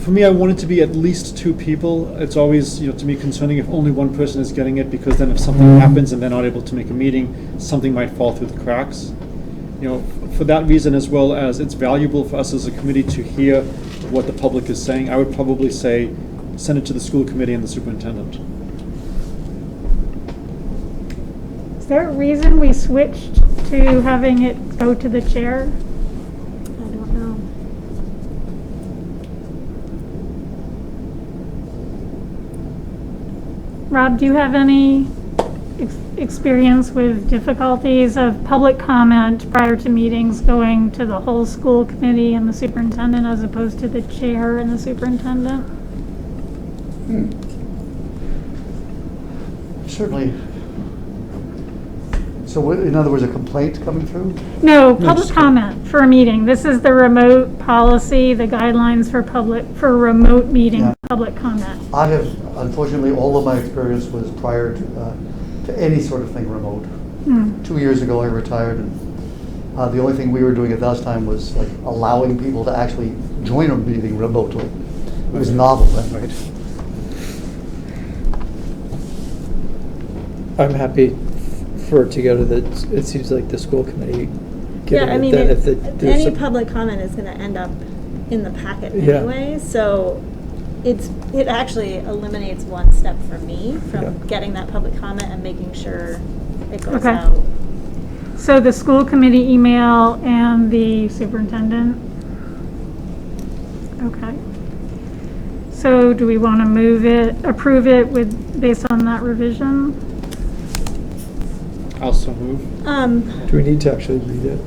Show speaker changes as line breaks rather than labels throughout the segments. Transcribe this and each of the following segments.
for me, I want it to be at least two people. It's always, you know, to me concerning if only one person is getting it, because then if something
Mm-hmm.
happens and they're not able to make a meeting, something might fall through the cracks. You know, for that reason, as well as it's valuable for us as a committee to hear what the public is saying, I would probably say, send it to the school committee and the superintendent.
Is there a reason we switched to having it go to the chair? I don't
Oh.
know. Rob, do you have any ex- experience with difficulties of public comment prior to meetings going to the whole school committee and the superintendent as opposed to the chair and the superintendent?
Certainly. So what- in other words, a complaint coming through?
No,
No,
public
just-
comment for a meeting. This is the remote policy, the guidelines for public, for remote meeting,
Yeah.
public comment.
I have, unfortunately, all of my experience was prior to, uh, to any sort of thing remote.
Hmm.
Two years ago, I retired, and uh, the only thing we were doing at that time was like allowing people to actually join a meeting remotely. It was novel then.
I'm happy for it to go to the, it seems like the school committee.
Yeah,
given
I
it
mean,
that if the-
it-
there's
any
some-
public comment is gonna end up in the packet
Yeah.
anyway, so it's, it actually eliminates one step for me
Yeah.
from getting that public comment and making sure it goes
Okay.
out.
So the school committee email and the superintendent? Okay. So do we want to move it, approve it with, based on that revision?
I'll so move.
Um,
Do we need to actually read it?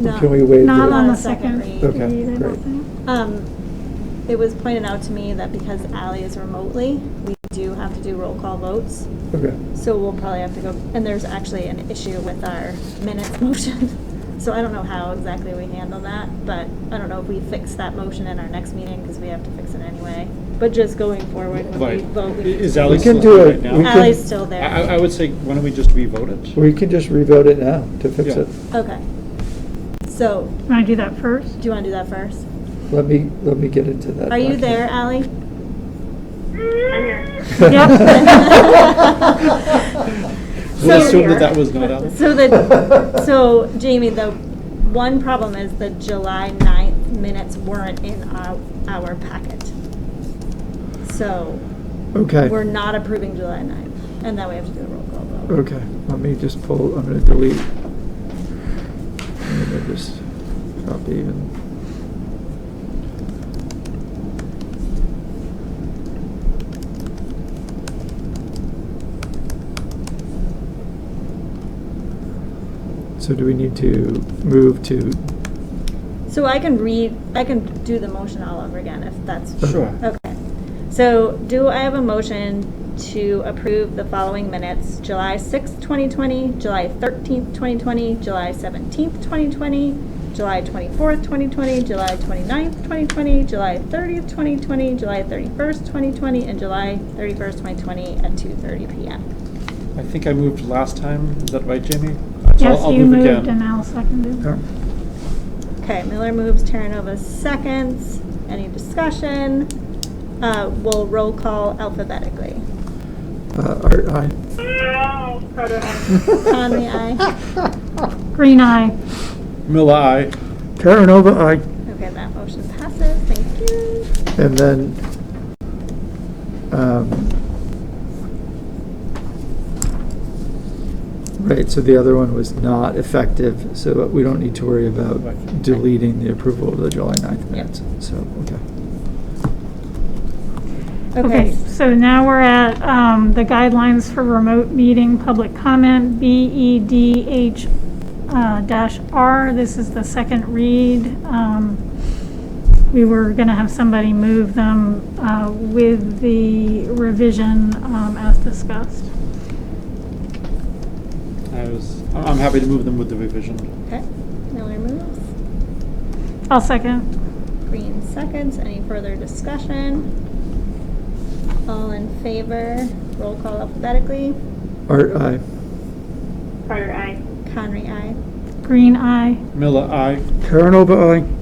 no.
Can we waive
Not
the-
on the
Not a second
second
read.
Okay,
read, I don't
great.
think.
Um, it was pointed out to me that because Ally is remotely, we do have to do roll call votes.
Okay.
So we'll probably have to go, and there's actually an issue with our minutes motion. So I don't know how exactly we handle that, but I don't know if we fix that motion in our next meeting, because we have to fix it anyway. But just going forward, when
Right.
we vote, we.
Is
Ali
Ally
We can
still
do
here
it.
right now?
We can-
Ally's still there.
I, I- I would say, why don't we just revote it?
We can just revote it now to fix
Yeah.
it.
Okay. So,
Want to do that first?
do you want to do that first?
Let me, let me get into
Uh,
that.
Are you there,
document.
Ally?
We'll
So-
assume that that was not Ally.
So the, so Jamie, the one problem is the July 9th minutes weren't in our, our packet. So
Okay.
we're not approving July 9th, and that we have to do a roll call vote.
Okay, let me just pull, I'm gonna delete. I'm gonna just copy and. So do we need to move to,
So I can read, I can do the motion all over again if that's.
Sure.
Okay. So do I have a motion to approve the following minutes? July 6th, 2020, July 13th, 2020, July 17th, 2020, July 24th, 2020, July 29th, 2020, July 30th, 2020, July 31st, 2020, and July 31st, 2020 at 2:30 PM.
I think I moved last time, is that right, Jamie? So I'll-
Yes,
I'll
you
move
moved
again.
and Al seconded.
oh,
Okay, Miller moves, Terranova seconds. Any discussion? Uh, We'll roll call alphabetically.
uh, Art, aye.
Conley, aye.
Green eye.
Miller, aye.
Karanova, aye.
Okay, that motion passes, thank you.
And then, um, right, so the other one was not effective, so we don't need to worry about
Right.
deleting the approval of the July 9th
Yep.
minutes. So, okay.
Okay, so now we're at um, the guidelines for remote meeting, public comment, BEDH uh, dash R. This is the second read. Um, We were going to have somebody move them uh, with the revision um, as discussed.
I was, I'm I'm happy to move them with the revision.
Okay, Miller moves,
I'll second.
Green seconds, any further discussion? All in favor, roll call alphabetically,
Art, aye.
Carter, I.
Conry, aye.
Green, aye.
Miller, aye.
Karanova, aye.